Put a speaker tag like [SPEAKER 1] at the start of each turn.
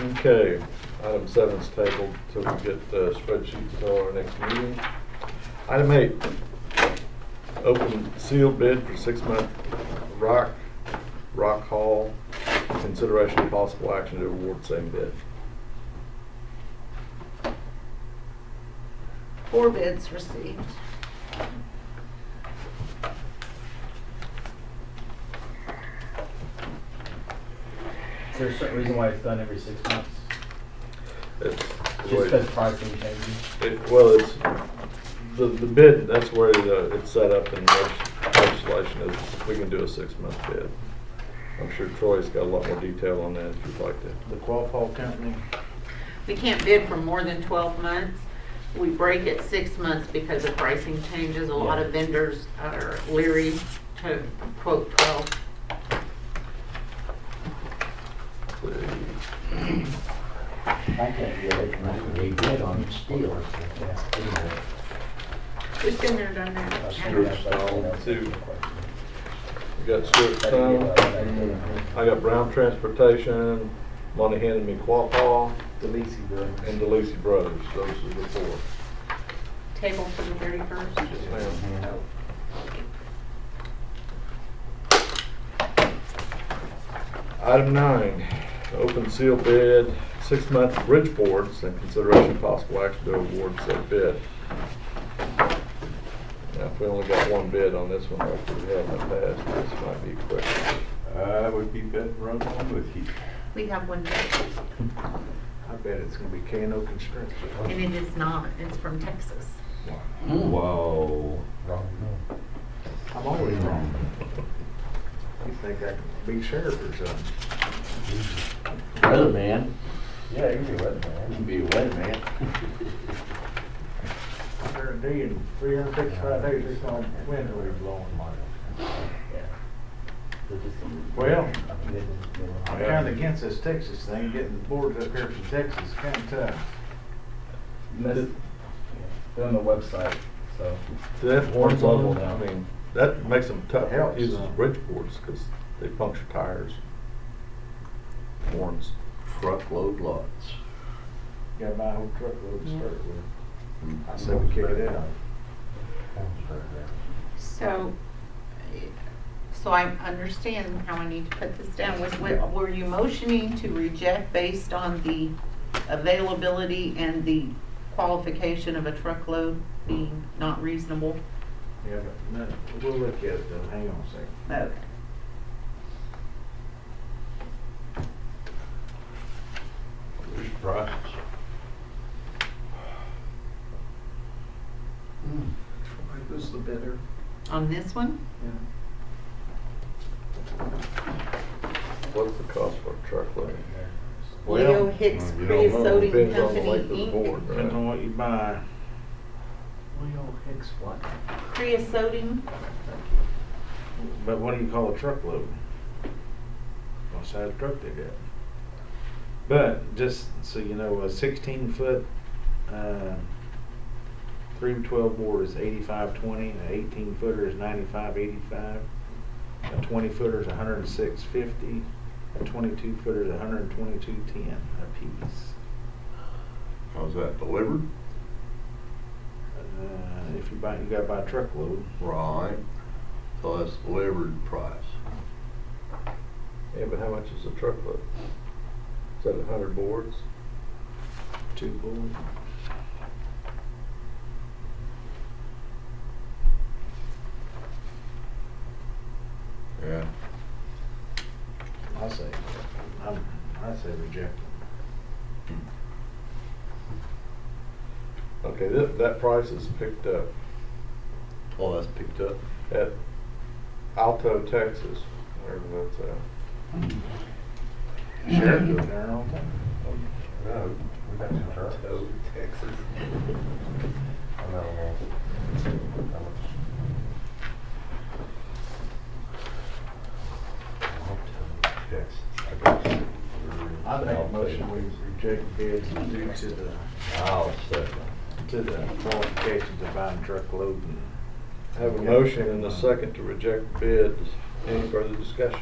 [SPEAKER 1] Okay, item seven is tabled till we get the spreadsheet till our next meeting. Item eight, open sealed bid for six-month rock, rock haul, consideration of possible action to award same bid.
[SPEAKER 2] Four bids received.
[SPEAKER 3] Is there a certain reason why it's done every six months?
[SPEAKER 1] It's the
[SPEAKER 3] Just
[SPEAKER 1] way-
[SPEAKER 3] because pricing changes?
[SPEAKER 1] It, well, it's, the, the bid, that's where the, it's set up in leg- legislation is we can do a six-month bid. I'm sure Troy's got a lot more detail on that if you'd like to.
[SPEAKER 4] The Qualpole Company,
[SPEAKER 5] We can't bid for more than twelve months. We break it six months because of pricing changes. A lot of vendors are leery to quote twelve.
[SPEAKER 6] I can't get it, and they did on steel. Anyway,
[SPEAKER 5] Who's been there, done that?
[SPEAKER 1] Two. We got Stewart Stone, I got Brown Transportation, Monty handed me Quapaw,
[SPEAKER 4] DeLacy Brothers.
[SPEAKER 1] and DeLacy Brothers, those are the four.
[SPEAKER 5] Table for the thirty-first.
[SPEAKER 1] Yes, ma'am. Item nine, open seal bid, six-month bridge boards and consideration of possible action to award said bid. Now, if we only got one bid on this one, like we have in the past, this might be quick.
[SPEAKER 4] I would be betting right along with you.
[SPEAKER 5] We have one bid,
[SPEAKER 4] I bet it's gonna be Kano Construction.
[SPEAKER 5] and it is not. It's from Texas.
[SPEAKER 4] Whoa.
[SPEAKER 6] wrong
[SPEAKER 4] I'm always wrong. You think I can be sheriff or something?
[SPEAKER 6] note. Weatherman,
[SPEAKER 3] Yeah, you can do it,
[SPEAKER 6] I can be a weatherman.
[SPEAKER 4] Guarantee in three hundred sixty-five days, it's gonna wind will be blowing my. Well, I'm kinda against this Texas thing, getting the boards up here from Texas, is kinda tough.
[SPEAKER 3] That's, they're on the website, so.
[SPEAKER 1] Do they have horns on them?
[SPEAKER 3] now.
[SPEAKER 1] I mean, that makes them tough,
[SPEAKER 4] Helps.
[SPEAKER 1] uses bridge boards, because they puncture tires. Horns.
[SPEAKER 6] Truckload lots.
[SPEAKER 4] Gotta buy a whole truckload to start with. I said we kick it out.
[SPEAKER 5] So, so I understand how I need to put this down. Was,
[SPEAKER 6] Yeah.
[SPEAKER 5] what- were you motioning to reject based on the availability and the qualification of a truckload being not reasonable?
[SPEAKER 4] Yeah, but, no, we'll look at it though, hang on a second.
[SPEAKER 5] Okay.
[SPEAKER 6] There's prices.
[SPEAKER 4] Who's Hmm. the bidder?
[SPEAKER 5] On this one?
[SPEAKER 1] What's the cost for a truckload?
[SPEAKER 5] Leo Hicks
[SPEAKER 6] you don't know.
[SPEAKER 5] Creosoting
[SPEAKER 1] Depends on the
[SPEAKER 5] Company,
[SPEAKER 1] length of the
[SPEAKER 5] Inc.
[SPEAKER 1] board,
[SPEAKER 4] Depends on
[SPEAKER 1] right?
[SPEAKER 4] what you buy.
[SPEAKER 3] Leo Hicks what?
[SPEAKER 5] Creosoting,
[SPEAKER 4] But what do you call a truckload? What size truck they got? But just so you know, a sixteen foot, uh, three to twelve board is eighty-five twenty, an eighteen footer is ninety-five eighty-five, a twenty footer is hundred and six fifty, a twenty-two footer is hundred and twenty-two ten apiece.
[SPEAKER 7] How's that delivered?
[SPEAKER 4] Uh, if you buy, you gotta buy a truckload.
[SPEAKER 7] Right. So that's delivered price.
[SPEAKER 1] Yeah, but how much is a truckload? Is that a hundred boards?
[SPEAKER 4] Two board.
[SPEAKER 7] Yeah.
[SPEAKER 4] I say, I'm, I say reject them.
[SPEAKER 1] Okay, that, that price is picked up
[SPEAKER 7] Oh, that's picked up.
[SPEAKER 1] at Alto, Texas, wherever that's at.
[SPEAKER 4] Sure. They're all done.
[SPEAKER 7] Alto, Texas.
[SPEAKER 6] Texas.
[SPEAKER 4] I make a motion, we reject bids due to the,
[SPEAKER 6] I'll second.
[SPEAKER 4] to the qualifications of buying truckload. and-
[SPEAKER 1] Have a motion and a second to reject bids. Any further discussion?